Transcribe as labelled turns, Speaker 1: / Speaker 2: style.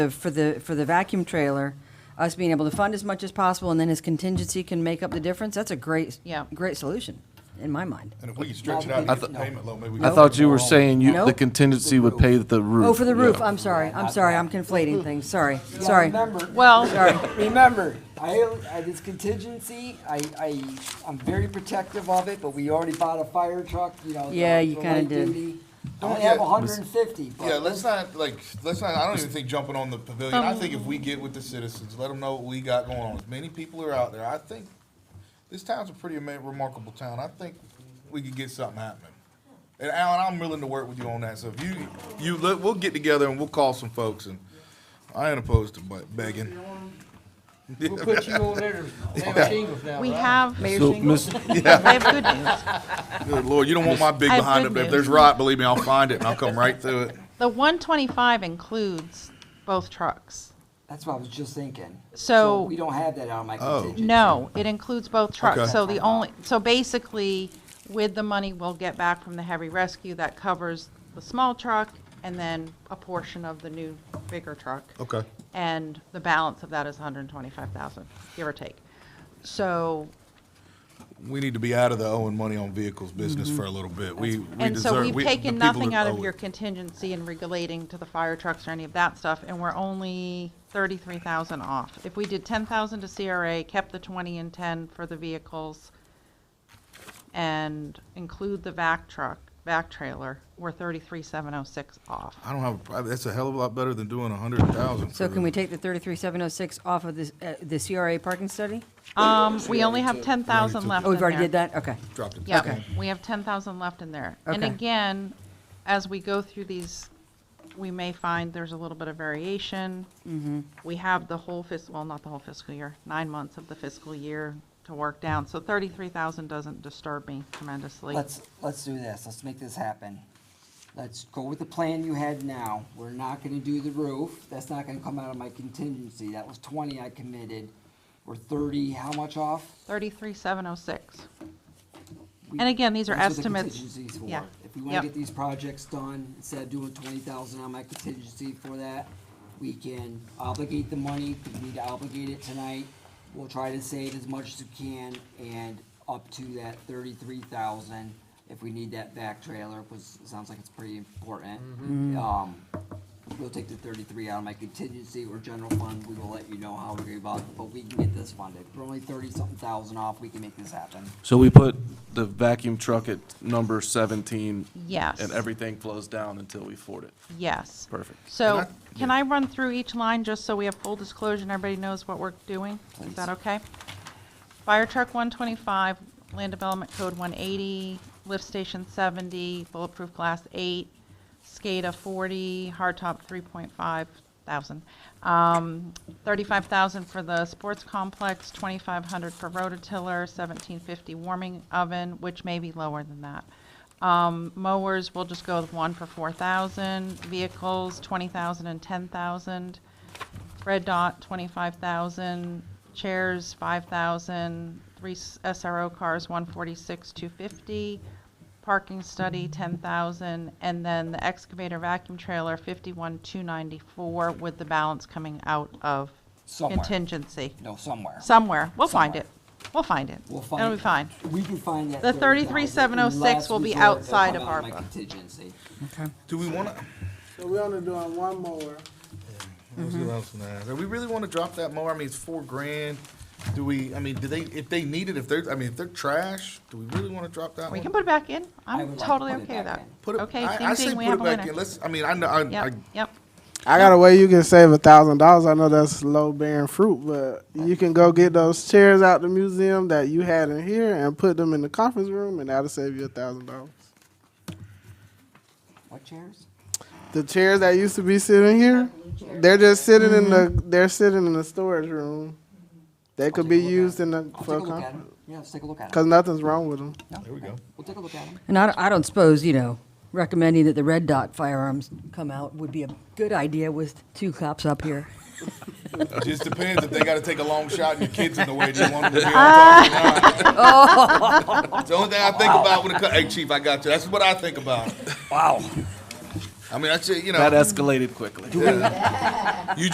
Speaker 1: for the, for the vacuum trailer, us being able to fund as much as possible, and then his contingency can make up the difference, that's a great,
Speaker 2: Yeah.
Speaker 1: great solution, in my mind.
Speaker 3: And if we can stretch it out
Speaker 4: I
Speaker 3: and get
Speaker 4: th-
Speaker 3: the payment low, maybe we
Speaker 4: I
Speaker 3: can.
Speaker 4: thought you were saying you, the
Speaker 1: Nope.
Speaker 4: contingency would pay the roof.
Speaker 1: Oh, for the roof,
Speaker 4: Yeah.
Speaker 1: I'm sorry, I'm sorry, I'm conflating things, sorry,
Speaker 5: Yeah,
Speaker 1: sorry,
Speaker 5: Remember,
Speaker 2: Well,
Speaker 1: sorry.
Speaker 5: remember, I, I- this contingency, I, I, I'm very protective of it, but we already bought a fire truck, you know.
Speaker 1: Yeah,
Speaker 5: the-
Speaker 1: you
Speaker 5: the
Speaker 1: kinda
Speaker 5: light
Speaker 1: did.
Speaker 5: duty. I
Speaker 3: Don't
Speaker 5: only have
Speaker 3: get-
Speaker 5: hundred and fifty,
Speaker 3: Yeah,
Speaker 5: but
Speaker 3: let's not, like, let's not, I don't even think jumping on the pavilion.
Speaker 2: Um,
Speaker 3: I think if we get with the citizens, let them know what we got going on. As many people are out there, I think this town's a pretty ama- remarkable town. I think we could get something happening. And Alan, I'm willing to work with you on that. So if you, you, let- we'll get together and we'll call some folks and I ain't opposed to bu- begging.
Speaker 6: We'll put you on there, damn shingles now,
Speaker 2: we
Speaker 6: right?
Speaker 2: have, we
Speaker 4: So, Miss,
Speaker 2: have good news.
Speaker 3: Good Lord, you don't want my big
Speaker 2: I have
Speaker 3: behind
Speaker 2: good
Speaker 3: up there. If
Speaker 2: news.
Speaker 3: there's rot, believe me, I'll find it and I'll come right through it.
Speaker 2: The 125 includes both trucks.
Speaker 5: that's what I was just thinking.
Speaker 2: So-
Speaker 5: We don't have that on my
Speaker 3: Oh.
Speaker 5: contingency.
Speaker 2: No, it includes both
Speaker 3: Okay.
Speaker 2: trucks. So the only, so basically, with the money we'll get back from the heavy rescue, that covers the small truck and then a portion of the new bigger truck.
Speaker 3: Okay.
Speaker 2: And the balance of that is 125,000, give or take. So
Speaker 3: We need to be out of the owing money on vehicles business for a little bit. We, we
Speaker 2: Mm-hmm. And so
Speaker 3: deserve-
Speaker 2: we've
Speaker 3: we- the
Speaker 2: taken
Speaker 3: people
Speaker 2: nothing out
Speaker 3: that
Speaker 2: of
Speaker 3: owe
Speaker 2: your
Speaker 3: it.
Speaker 2: contingency and regulating to the fire trucks or any of that stuff, and we're only thirty-three thousand off. If we did ten thousand to CRA, kept the twenty and ten for the vehicles, and include the vac truck, vac trailer, we're thirty-three seven oh six off.
Speaker 3: I don't have, a prob- that's a hell of a lot better than doing a hundred thousand.
Speaker 1: So can we take the 33706 off of this, uh, the CRA parking study?
Speaker 2: Um, we only have ten thousand left
Speaker 1: Oh, we've
Speaker 2: in
Speaker 1: already
Speaker 2: there.
Speaker 1: did that, okay.
Speaker 3: Dropped it.
Speaker 2: Yeah, we have ten thousand left in there. And
Speaker 1: Okay.
Speaker 2: again, as we go through these, we may find there's a little bit of variation.
Speaker 1: Mm-hmm.
Speaker 2: We have the whole fiscal, well, not the whole fiscal year, nine months of the fiscal year to work down. So thirty-three thousand doesn't disturb me tremendously.
Speaker 5: Let's, let's do this, let's make this happen. Let's go with the plan you had now, we're not gonna do the roof, that's not gonna come out of my contingency, that was twenty I committed. We're thirty, how much off?
Speaker 2: Thirty-three, seven oh six.
Speaker 5: We-
Speaker 2: And again, these are
Speaker 5: That's what the
Speaker 2: estimates.
Speaker 5: contingency's for.
Speaker 2: Yeah.
Speaker 5: If we want
Speaker 2: Yep.
Speaker 5: to get these projects done, instead of doing twenty thousand on my contingency for that, we can obligate the money, because we need to obligate it tonight. We'll try to save as much as we can and up to that thirty-three thousand if we need that back trailer, which sounds like it's pretty important.
Speaker 2: Mm-hmm.
Speaker 5: Um, we'll take the thirty-three out of my contingency or general fund, we will let you know how we go about, it, but we can get this funded. We're only thirty-something thousand off, we can make this happen.
Speaker 4: so we put the vacuum truck at number seventeen.
Speaker 2: Yes.
Speaker 4: And everything flows down until we afford it.
Speaker 2: Yes.
Speaker 4: Perfect.
Speaker 2: So,
Speaker 3: And I-
Speaker 2: can I run through each line just so we have full disclosure and everybody knows what we're doing? Is
Speaker 5: Please.
Speaker 2: that okay? Fire truck one twenty-five, land development code one eighty, lift station seventy, bulletproof glass eight, SCADA forty, hardtop three point five thousand. Um, thirty-five thousand for the sports complex, twenty-five hundred for rototiller, seventeen fifty warming oven, which may be lower than that. Um, mowers, we'll just go with one for four thousand, vehicles, twenty thousand and ten thousand. Red Dot, twenty-five thousand, chairs, five thousand, three s- SRO cars, one forty-six, two fifty, parking study, ten thousand, and then the excavator vacuum trailer, fifty-one, two ninety-four, with the balance coming out of
Speaker 5: Somewhere.
Speaker 2: contingency.
Speaker 5: No, somewhere.
Speaker 2: Somewhere, we'll find
Speaker 5: Somewhere.
Speaker 2: it, we'll find it,
Speaker 5: We'll find.
Speaker 2: it'll be fine.
Speaker 5: We can find that.
Speaker 2: The
Speaker 5: 30,000.
Speaker 2: 33,706 will be
Speaker 5: Last resort,
Speaker 2: outside of
Speaker 5: it'll come out my
Speaker 2: ARPA.
Speaker 5: Contingency.
Speaker 3: Do we wanna,
Speaker 6: So we're only doing one more.
Speaker 3: Let's
Speaker 2: Mm-hmm.
Speaker 3: do else than that. Do we really wanna drop that mower? I mean, it's four grand. Do we, I mean, do they, if they need it, if they're, I mean, if they're trash, do we really wanna drop that
Speaker 2: We
Speaker 3: one?
Speaker 2: can put it back in,
Speaker 5: I
Speaker 2: I'm
Speaker 5: would like to
Speaker 2: totally
Speaker 5: put it
Speaker 2: okay with
Speaker 5: back
Speaker 2: that.
Speaker 5: in.
Speaker 3: Put it,
Speaker 2: Okay,
Speaker 3: I,
Speaker 2: ding
Speaker 3: I say
Speaker 2: ding, we
Speaker 3: put
Speaker 2: have a
Speaker 3: it back in.
Speaker 2: winner.
Speaker 3: Let's, I mean, I know, I, I,
Speaker 2: Yep, yep.
Speaker 7: I got a way you can save a thousand dollars. I know that's low bearing fruit, but you can go get those chairs out the museum that you had in here and put them in the conference room, and that'll save you a thousand dollars.
Speaker 5: What chairs?
Speaker 7: The chairs that used to be sitting here, they're just sitting in the they're sitting in the storage room. They could
Speaker 5: take
Speaker 7: be
Speaker 5: a look at
Speaker 7: used
Speaker 5: it.
Speaker 7: in the
Speaker 5: I'll
Speaker 7: for
Speaker 5: take a look
Speaker 7: a
Speaker 5: at
Speaker 7: conference
Speaker 5: them. Yeah, let's take a look at
Speaker 7: because
Speaker 5: them.
Speaker 7: nothing's wrong with them.
Speaker 5: There we go. We'll take a look at them.
Speaker 1: And I, don't- I don't suppose, you know, recommending that the red dot firearms come out would be a good idea with two cops up here.
Speaker 3: It just depends if they gotta take a long shot and your kid's in the way. Do you want them to be on top or not? It's the only thing I think about when it comes, hey, chief, I got you. That's what I think about. Wow. I mean, that's, it, you know.
Speaker 4: That escalated quickly.